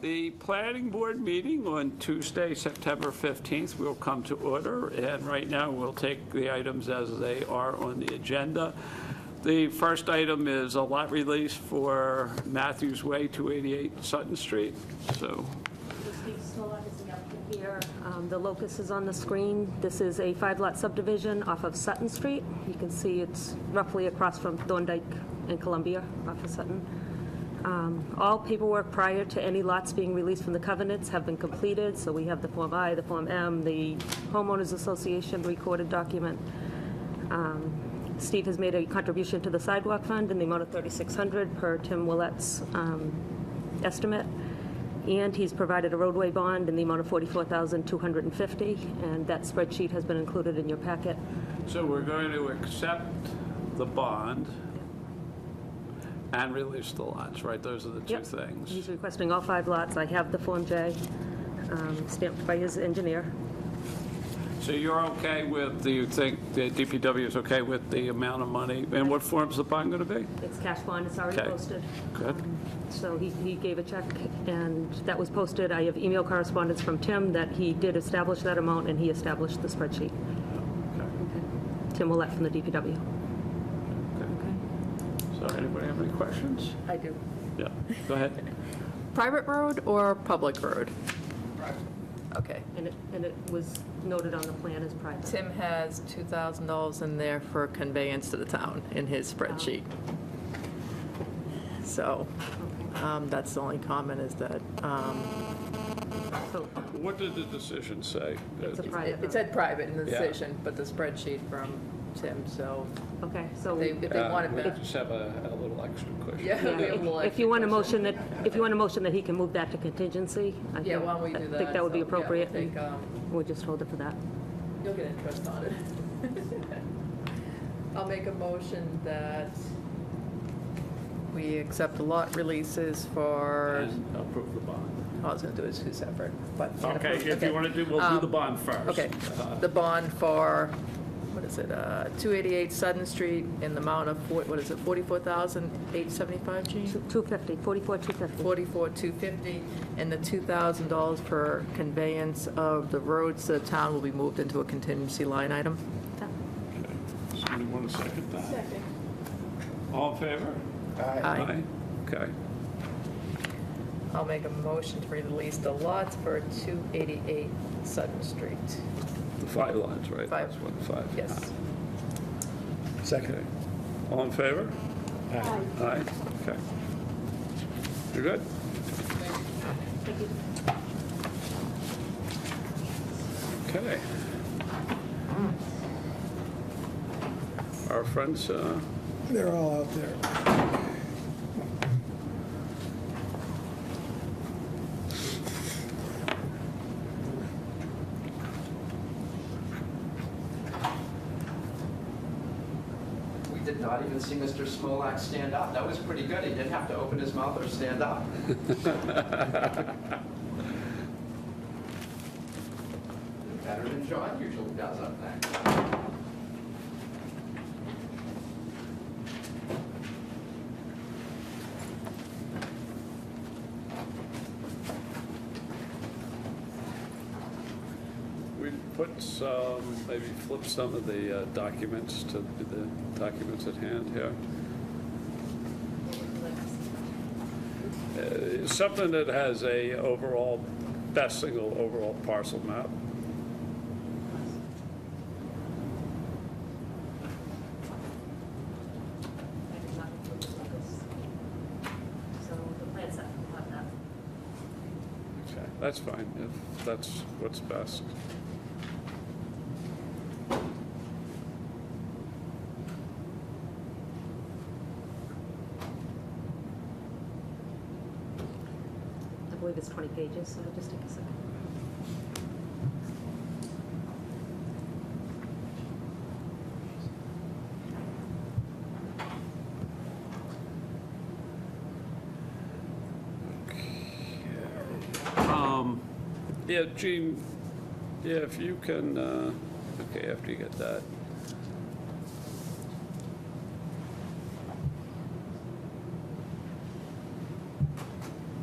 The planning board meeting on Tuesday, September 15th will come to order, and right now, we'll take the items as they are on the agenda. The first item is a lot release for Matthews Way, 288 Sutton Street, so So Steve Snow is up here. Um, The locus is on the screen. This is a five-lot subdivision off of Sutton Street. You can see it's roughly across from Thorndike and Columbia off of Sutton. Um, All paperwork prior to any lots being released from the covenants have been completed, so we have the Form I, the Form M, the homeowners association recorded document. Um, Steve has made a contribution to the sidewalk fund in the amount of 3,600 per Tim Willet's um, estimate. And he's provided a roadway bond in the amount of 44250 and that spreadsheet has been included in your packet. So we're going to accept the bond and release the lots, right? Those are the two Yep. He's things. requesting all five lots. I have the Form J um, stamped by his engineer. So you're okay with, do you think the DPW is okay with the amount of money? And what form's the bond going to be? It's cash bond, it's already Okay. posted. Good. So he, he gave a check, and that was posted. I have email correspondence from Tim that he did establish that amount, and he established the spreadsheet. Tim Willett from the DPW. So anybody have any questions? I do. Yeah, go ahead. Private road or public road? Okay. And it, and it was noted on the plan as private. Tim has $2,000 in there for conveyance to the town in his spreadsheet. So um, that's the only comment is that, um, So What did the decision say? it's a private. it said private in the Yeah. decision, but the spreadsheet from Tim, so Okay, so. they- if they want it uh, We back. just have a a little extra question. Yeah, yeah, we have a little If if you want a extra motion that, if you want a motion that he can move that to contingency, I question. Yeah, think, why don't we I do that? think that would be So, yeah, we'll appropriate. take, um, We'll just hold it for that. You'll get interest on it. I'll make a motion that we accept the lot releases for And approve the bond. I was gonna do it two separate, but. Okay, if you want to do, we'll do the bond first. Um, Uh, Okay, the bond for, what is it, uh, 288 Sutton Street in the amount of, four- what is it, 44,875, Gene? 250, 44, 250. 44,250, and the $2,000 for conveyance of the roads to the town will be moved into a contingency line item. Okay. Somebody want to second that? Second. All in favor? Aye. Okay. I'll make a motion to release the lots for 288 Sutton Street. The five lines, right? Five. That's what, five? Yes. Okay. All in favor? Aye. Aye, okay. You're good? Okay. Our friends, uh, They're all out there. We did not even see Mr. Smolak stand up. That was pretty good. He didn't have to open his mouth or stand up. Better than John usually does up there. we put some, maybe flip some of the uh, documents to the documents at hand here. Uh, Something that has a overall, best single overall parcel map. So the plan's up, that. Okay, That's fine, if that's what's best. I believe it's 20 pages, so it'll just take a second. Um, Yeah, Gene, yeah, if you can, uh, okay, after you get that.